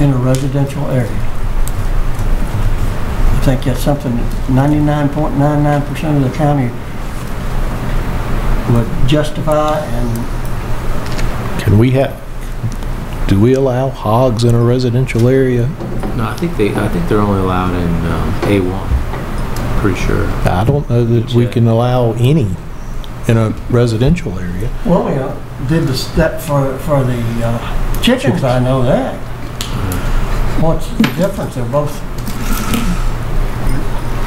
in a residential area. I think that's something that 99.99% of the county would justify and Can we have, do we allow hogs in a residential area? No, I think they, I think they're only allowed in um, A1, pretty sure. I don't know that we can allow any in a residential area. Well, we uh, did the step for, for the uh, chickens, I know that. What's the difference? They're both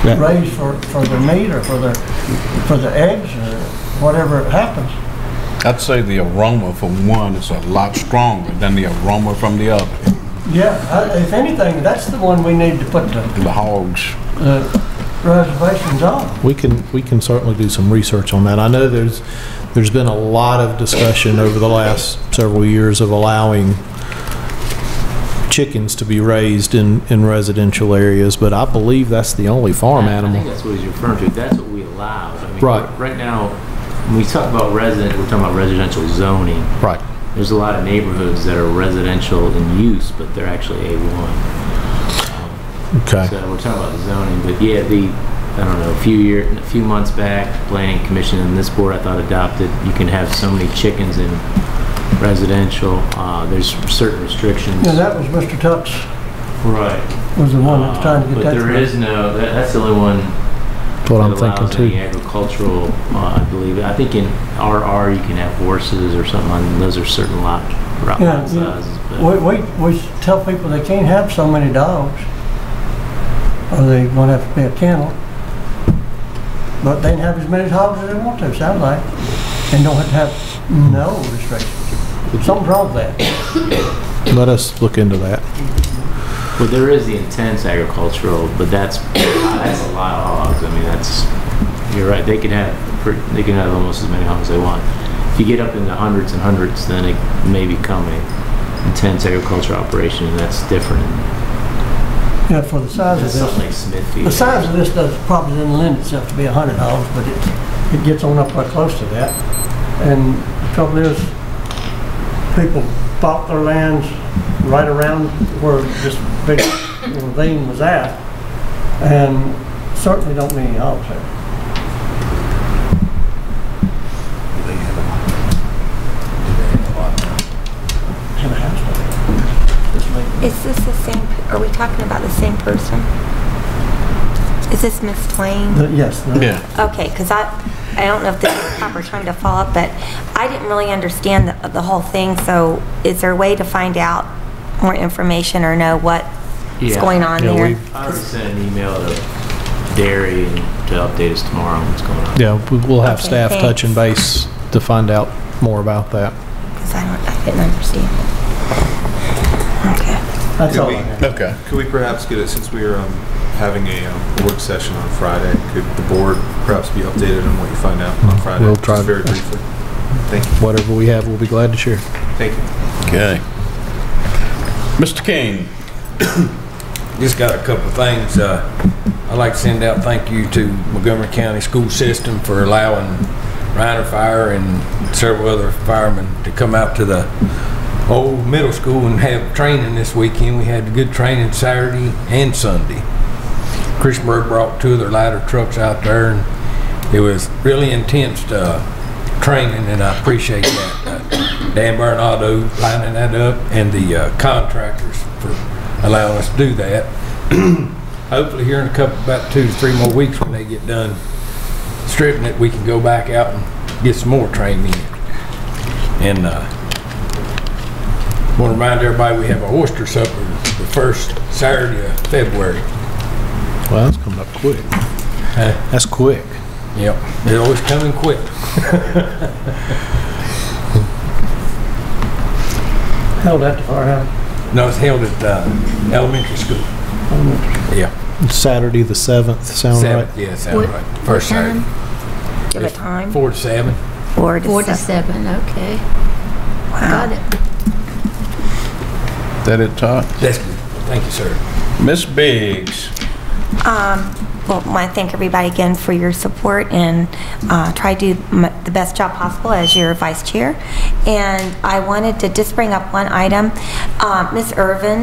Yeah. raised for, for the meat or for the, for the eggs or whatever happens. I'd say the aroma from one is a lot stronger than the aroma from the other, Yeah, I- if anything, that's the one we need to put the the hogs. the reservations on. We can, we can certainly do some research on that. I know there's, there's been a lot of discussion over the last several years of allowing chickens to be raised in, in residential areas, but I believe that's the only farm I think animal. that's what he's referring to, that's what we allow. I mean, Right. Right now, when we talk about resident, we're talking about residential zoning. Right. There's a lot of neighborhoods that are residential in use, but they're actually A1. Okay. So we're talking about zoning, but yeah, the, I don't know, a few year, a few months back, planning commission and this board I thought adopted, you can have so many chickens in residential, uh, there's certain restrictions. Yeah, that was Mr. Tuck's, Right. was the one that was trying Oh, to get But that. there is no, that- that's the only one That's what that I'm thinking allows any too. agricultural, uh, I believe. I think in RR, you can have horses or something, and those are certain lot, lot Yeah, yeah. sizes. but- We, we, we tell people they can't have so many dogs, or they gonna have to be a kennel. But they can have as many dogs as they want to, sounds like, and don't have to have no restrictions. Something's wrong with that. Let us look into that. Well, there is the intense agricultural, but that's, that's a lot of hogs. I mean, that's, you're right, they can have, pre- they can have almost as many hogs they want. If you get up into hundreds and hundreds, then it may become a intense agricultural operation, and that's different. Yeah, for the size of That's this. something like Smithfield. The size of this does, probably doesn't lend itself to be a hundred dogs, but it, it gets on up right close to that. And the trouble is, people bought their lands right around where this big little vein was at, and certainly don't need any hogs there. Have a house there. Is this the same, are we talking about the same person? Is this Miss Twain? The- Yes, the- Yeah. Okay, because I, I don't know if this is the proper time to follow up, but I didn't really understand the, the whole thing, so is there a way to find out more information or know what's Yeah. going on Yeah, there? we- I already sent an email to Derry and to update us tomorrow on what's going on. Yeah, we- we'll have Okay, staff touch and thanks. base to find out more about that. 'Cause I don't, I didn't understand. Okay. that's Could all I we- have. Okay. Could we perhaps get it, since we are um, having a um, work session on Friday, could the board perhaps be updated on what you find out on Friday? We'll try. Just Very briefly. Thank you, Whatever we have, we'll be glad to share. thank you. Okay. Mr. King, Just got a couple of things. Uh, I'd like to send out thank you to Montgomery County School System for allowing Reiner Fire and several other firemen to come out to the old middle school and have training this weekend. We had good training Saturday and Sunday. Chris Bird brought two of their ladder trucks out there, and it was really intense uh, training, and I appreciate that. Uh, Dan Bernardo lining that up, and the uh, contractors for allowing us to do that. Hopefully, here in a couple, about two to three more weeks, when they get done stripping it, we can go back out and get some more training in. And uh, want to remind everybody we have a oyster supper the first Saturday of February. Well, that's coming up quick. That's quick. Yep, they always come in quick. Held at the firehouse. No, it's held at uh, elementary school. Yeah, Saturday, the 7th, sound right? seven, yeah, sound right. First Saturday, Give a time? four to seven. Four to Four to seven. seven, okay. Got it. that it, Todd? That's good. Thank you, sir. Miss Biggs, Um, Well, I want to thank everybody again for your support and uh, try to do m- the best job possible as your vice chair. And I wanted to just bring up one item. Uh, Ms. Irvin